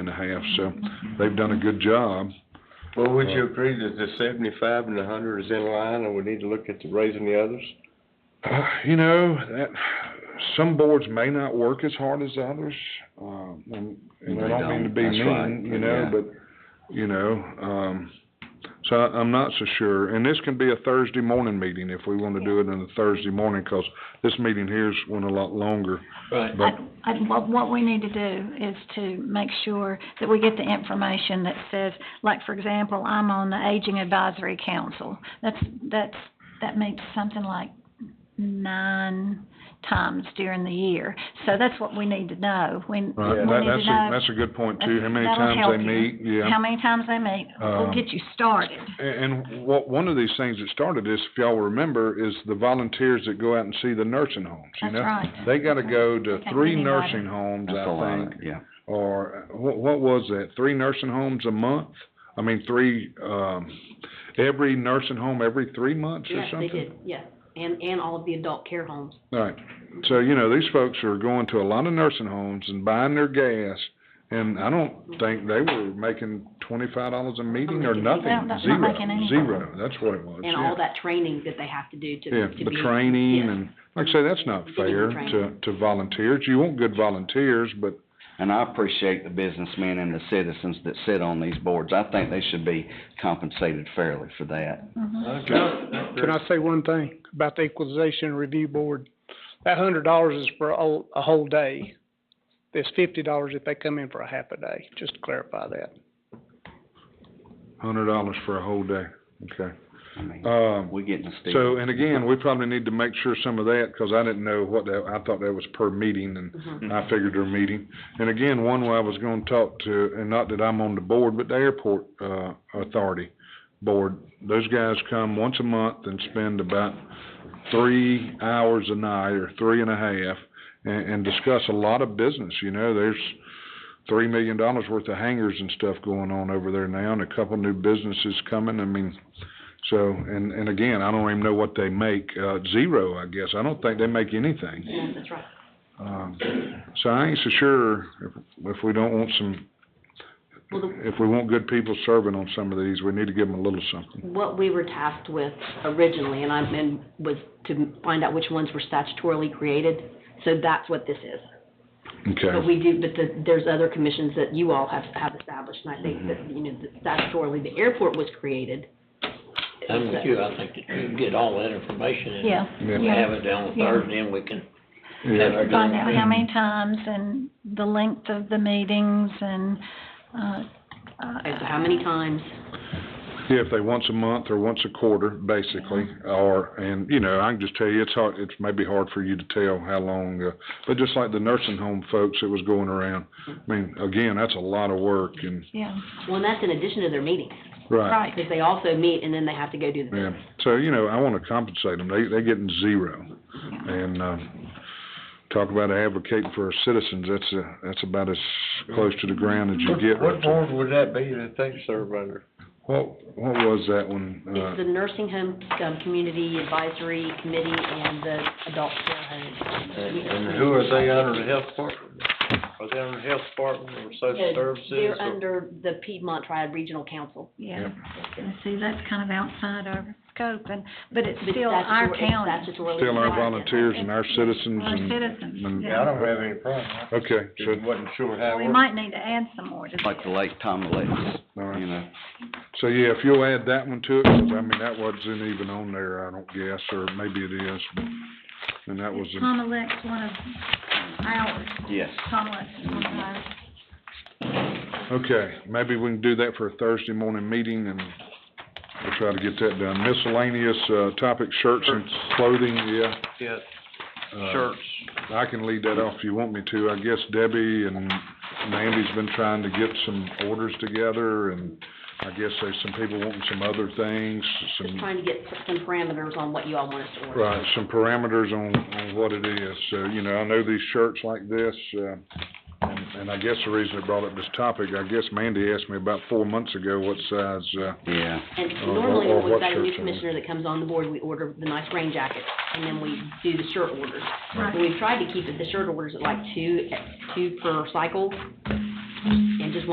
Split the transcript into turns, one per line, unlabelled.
and a half, so they've done a good job.
Well, would you agree that the seventy-five and the hundred is in line, and we need to look at the raising the others?
Uh, you know, that, some boards may not work as hard as others, um, and, and I
They
don't mean to
don't,
be
that's
mean,
right,
you know,
yeah.
but, you know, um, so I, I'm not so sure. And this can be a Thursday morning meeting if we wanna do it on a Thursday morning, 'cause this meeting here's went a lot longer.
Right.
But,
I, what, what we need to do is to make sure that we get the information that says, like, for example, I'm on the Aging Advisory Council. That's, that's, that meets something like nine times during the year. So that's what we need to know. We, we need
right,
Yeah.
that,
to
that's a,
know
that's a good point too, how many
uh, That'll
times
help
they
you.
meet, yeah.
how many times they meet. We'll
Um,
get you started.
And, and what, one of these things that started this, if y'all remember, is the volunteers that go out and see the nursing homes, you
That's
know?
right.
They gotta go to
They can't
three
anybody.
nursing homes,
That's a
I
lot,
think,
yeah.
or, what, what was that, three nursing homes a month? I mean, three, um, every nursing home every three months or
Yes,
something?
they did, yeah, and, and all of the adult care homes.
Right, so, you know, these folks are going to a lot of nursing homes and buying their gas, and I don't think they were making twenty-five dollars a meeting or
Well,
nothing,
that's not
zero,
making any.
zero, that's what it was,
And
yeah.
all that training that they have to do to,
Yeah,
to be.
the training
yes.
and, like I say, that's not
Getting the
fair to,
training.
to volunteers. You want good volunteers, but,
And I appreciate the businessmen and the citizens that sit on these boards. I think they should be compensated fairly for that.
Can I say one thing about the equalization review board? That hundred dollars is for a, whole- a whole day. There's fifty dollars if they come in for a half a day, just to clarify that.
hundred dollars for a whole day, okay.
I mean,
Um,
we're getting a steal.
so, and again, we probably need to make sure some of that, cause I didn't know what that, I thought that was per meeting
Mm-hmm.
and I figured their meeting. And again, one way I was gonna talk to, and not that I'm on the board, but the airport, uh, authority board, those guys come once a month and spend about three hours a night or three and a half and, and discuss a lot of business, you know, there's three million dollars worth of hangars and stuff going on over there now and a couple new businesses coming, I mean, so, and, and again, I don't even know what they make, uh, zero, I guess, I don't think they make anything.
Yeah, Mm-hmm, that's right.
Um, so I ain't so sure if, if we don't want some,
Well, the,
if we want good people serving on some of these, we need to give them a little something.
what we were tasked with originally, and I, and was to find out which ones were statutorily created, so that's what this is. But
Okay,
we do, but the, there's other commissions that you all have, have established, and I think that,
Mm-hmm.
you know, that statutorily, the airport was created.
I'm with you, I think that you can get all that information and
Yeah,
Yeah.
we have it down
Yeah.
Thursday and we can have
yeah,
our
find out how
done.
many times and the length of the meetings and, uh, uh,
Okay, so how many times?
yeah, if they once a month or once a quarter, basically, or, and, you know, I can just tell you, it's hard, it's maybe hard for you to tell how long, uh, but just like the nursing home folks that was going around, I mean, again, that's a lot of work and,
yeah,
Well, and that's in addition to their meetings,
right,
right.
because they also meet and then they have to go do the
yeah. So, you know, I wanna compensate them, they, they getting zero. And, um, talk about advocating for our citizens, that's, uh, that's about as close to the ground as you get.
What- What
right there.
board would that be that they serve under?
What, what was that one?
It's the
Uh,
nursing home, um, community advisory committee and the adult care
And-
home.
and
Who are they under, the health department? Are they under the health department or social
Yeah,
services?
They're
or-
under the Piedmont Triad Regional Council.
Yeah,
Yep.
and see, that's kind of outside our scope, and, but it's
But
still our
statutory- it's
county,
statutorily
still our
required.
volunteers and our citizens
our
and.
citizens,
and-
Yeah, I
yeah.
don't have any problem.
Okay, so,
Just wasn't sure how. it
We
worked.
might need to add some more to
Like the
this.
late Tom Lewis,
all
you
right.
know,
So, yeah, if you'll add that one to it, 'cause, I mean, that wasn't even on there, I don't guess, or maybe it is. And that was,
Is
the-
Tom Elect's one of ours,
yes.
Tom Elect's one of ours.
okay, maybe we can do that for a Thursday morning meeting and we'll try to get that done. Miscellaneous, uh, topic shirts and clothing, yeah.
Yeah,
uh,
shirts.
I can lead that off if you want me to. I guess Debbie and Mandy's been trying to get some orders together, and I guess there's some people wanting some other things,
Just
some,
trying to get some parameters on what you all want us to order.
right, some parameters on, on what it is. So, you know, I know these shirts like this, uh, and, and I guess the reason I brought up this topic, I guess Mandy asked me about four months ago what size, uh,
Yeah,
And
or-
normally
or
when we've
what
got a new
shirts are-
commissioner that comes on the board, we order the nice rain jackets and then we do the shirt orders.
Right.
But We've tried to keep it, the shirt orders at like two, two per cycle,